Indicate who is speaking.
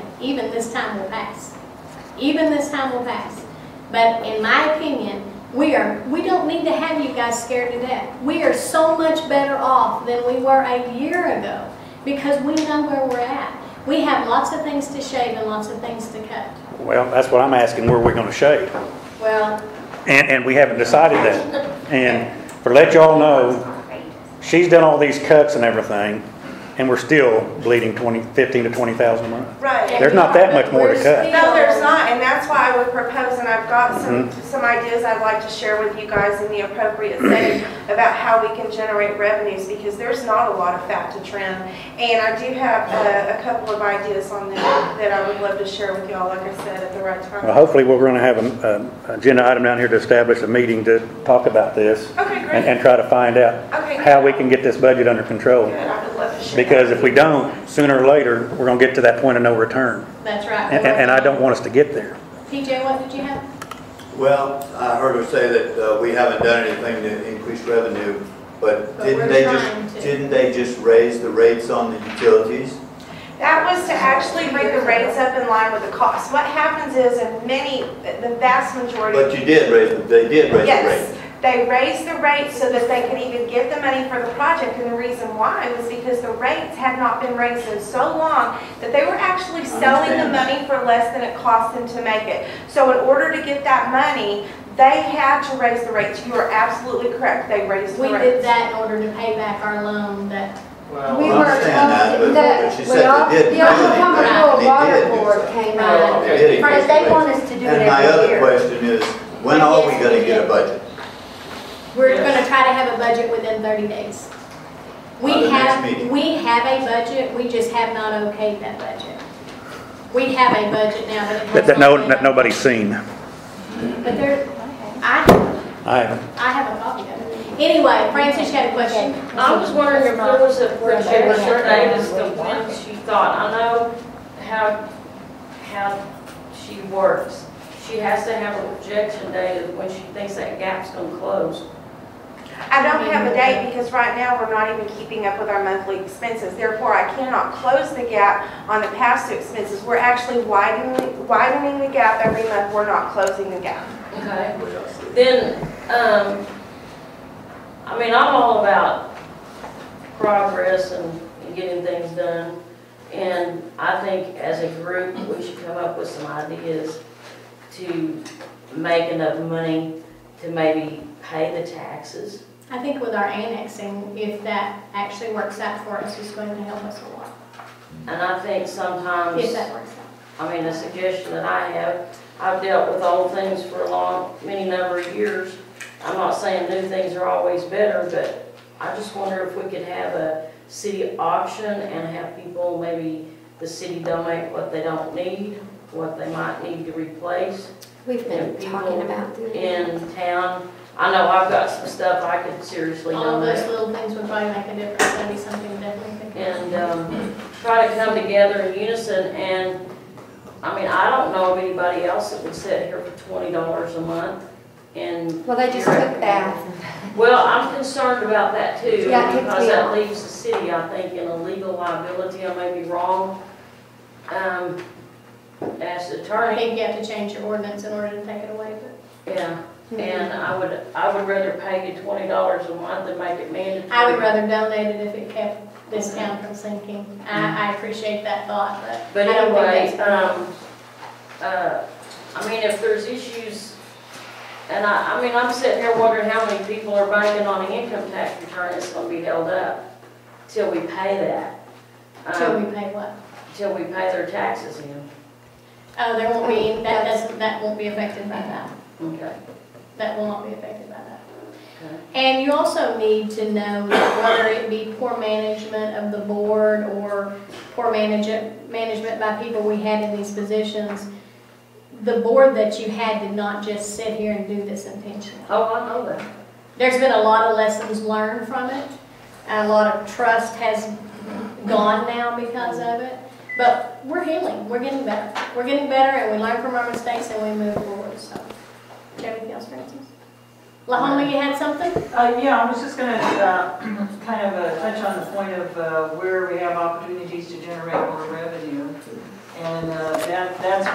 Speaker 1: even this time will pass. Even this time will pass. But in my opinion, we are, we don't need to have you guys scared to death. We are so much better off than we were a year ago because we know where we're at. We have lots of things to shave and lots of things to cut.
Speaker 2: Well, that's what I'm asking, where we're gonna shade.
Speaker 1: Well,
Speaker 2: And, and we haven't decided that. And for let y'all know, she's done all these cuts and everything, and we're still bleeding twenty, fifteen to twenty thousand a month.
Speaker 1: and
Speaker 3: Right.
Speaker 2: There's not that much more to
Speaker 1: we're
Speaker 2: cut.
Speaker 1: still-
Speaker 3: No, there's not, and that's why I would propose, and I've got some,
Speaker 2: Mm-hmm.
Speaker 3: some ideas I'd like to share with you guys in the appropriate setting about how we can generate revenues, because there's not a lot of fat to trim. And I do have a, a couple of ideas on that, that I would love to share with y'all, like I said, at the right
Speaker 2: Well,
Speaker 3: time.
Speaker 2: hopefully, we're gonna have an, an agenda item down here to establish a meeting to talk about this
Speaker 3: Okay,
Speaker 2: and,
Speaker 3: great.
Speaker 2: and try to find out
Speaker 3: Okay.
Speaker 2: how we can get this budget under
Speaker 3: Good,
Speaker 2: control.
Speaker 3: I would love to share.
Speaker 2: Because if we don't, sooner or later, we're gonna get to that point of no return.
Speaker 1: That's right.
Speaker 2: And, and I don't want us to get there.
Speaker 1: TJ, what did you have?
Speaker 4: Well, I heard her say that uh, we haven't done anything to increase revenue, but
Speaker 1: But we're
Speaker 4: didn't they
Speaker 1: trying
Speaker 4: just,
Speaker 1: to.
Speaker 4: didn't they just raise the rates on the utilities?
Speaker 3: That was to actually bring the rates up in line with the cost. What happens is, in many, the vast majority of
Speaker 4: But you did raise, the- they did raise the
Speaker 3: Yes,
Speaker 4: rate.
Speaker 3: they raised the rates so that they could even get the money for the project, and the reason why was because the rates had not been raised in so long that they were actually selling the
Speaker 4: understand that.
Speaker 3: money for less than it cost them to make it. So in order to get that money, they had to raise the rates. You are absolutely correct, they raised
Speaker 1: We
Speaker 3: the
Speaker 1: did
Speaker 3: rates.
Speaker 1: that in order to pay back our loan that,
Speaker 5: Well,
Speaker 6: We
Speaker 4: I
Speaker 6: were
Speaker 4: understand that,
Speaker 6: told
Speaker 4: but-
Speaker 6: that
Speaker 4: but she
Speaker 6: when
Speaker 4: said they
Speaker 6: all-
Speaker 4: didn't
Speaker 6: The
Speaker 4: do anything,
Speaker 6: Oklahoma
Speaker 4: and they
Speaker 6: Water
Speaker 4: did do
Speaker 6: Board
Speaker 4: something.
Speaker 6: came out.
Speaker 4: They did
Speaker 6: Friends,
Speaker 4: increase
Speaker 6: they
Speaker 4: the
Speaker 6: want
Speaker 4: rates.
Speaker 6: us to do it
Speaker 4: And my
Speaker 6: every
Speaker 4: other
Speaker 6: year.
Speaker 4: question is, when are we gonna get a budget?
Speaker 1: we're
Speaker 5: Yes.
Speaker 1: gonna try to have a budget within thirty days. We
Speaker 4: By the next
Speaker 1: have,
Speaker 4: meeting.
Speaker 1: we have a budget, we just have not okayed that budget. We have a budget now, but it has
Speaker 2: That, that
Speaker 1: not
Speaker 2: no,
Speaker 1: been-
Speaker 2: that nobody's seen.
Speaker 1: But there, I,
Speaker 2: I haven't.
Speaker 1: I have a copy of it. Anyway, Francis, you had a question?
Speaker 5: I was wondering if there was a projection date as to when she thought, I know how, how she works. She has to have a projection date of when she thinks that gap's gonna close.
Speaker 3: I don't have a date because right now, we're not even keeping up with our monthly expenses. Therefore, I cannot close the gap on the past due expenses. We're actually widening, widening the gap every month. We're not closing the gap.
Speaker 5: Okay. Then, um, I mean, I'm all about progress and and getting things done. And I think as a group, we should come up with some ideas to make enough money to maybe pay the taxes.
Speaker 1: I think with our annexing, if that actually works out for us, it's going to help us a lot,
Speaker 5: And I think sometimes.
Speaker 1: if that works out.
Speaker 5: I mean, a suggestion that I have, I've dealt with old things for a long, many number of years. I'm not saying new things are always better, but I just wonder if we could have a city auction and have people, maybe the city donate what they don't need, what they might need to replace
Speaker 6: We've been talking about doing.
Speaker 5: in town. I know I've got some stuff I could seriously
Speaker 1: All of those
Speaker 5: donate.
Speaker 1: little things would probably make a difference, that'd be something definitely. to think about.
Speaker 5: And, um, try to come together in unison and I mean, I don't know of anybody else that would sit here for twenty dollars a month and.
Speaker 6: Well, they just took that.
Speaker 5: Well, I'm concerned about that too,
Speaker 6: Yeah, it takes
Speaker 5: because
Speaker 6: me
Speaker 5: that
Speaker 6: off.
Speaker 5: leaves the city, I think, in a legal liability, I may be wrong. Um, as
Speaker 1: I
Speaker 5: attorney,
Speaker 1: think you have to change your ordinance in order to take it away, but
Speaker 5: yeah, and I would, I would rather pay you twenty dollars a month than make it mandatory.
Speaker 1: I would rather donate it if it kept this town from sinking. I, I appreciate that thought, but
Speaker 5: Mm-hmm. But
Speaker 1: I don't think
Speaker 5: anyway,
Speaker 1: that's.
Speaker 5: um, uh, I mean, if there's issues, and I, I mean, I'm sitting here wondering how many people are banking on an income tax return that's gonna be held up till we pay that.
Speaker 1: Till
Speaker 5: um,
Speaker 1: we pay what?
Speaker 5: Till we pay their taxes in,
Speaker 1: Oh, there won't be, that doesn't, that won't be affected by that.
Speaker 5: okay.
Speaker 1: that will not be affected by that.
Speaker 5: Okay.
Speaker 1: And you also need to know that whether it be poor management of the board or poor management, management by people we had in these positions, the board that you had did not just sit here and do this intentionally.
Speaker 5: Oh, I know that.
Speaker 1: There's been a lot of lessons learned from it. A lot of trust has gone now because of it. But we're healing, we're getting better. We're getting better and we learn from our mistakes and we move forward, so. Do you have anything else, Francis? Lahoma, you had something?
Speaker 7: Uh, yeah, I was just gonna, uh, kind of uh, touch on the point of, uh, where we have opportunities to generate more revenue. And uh, that, that's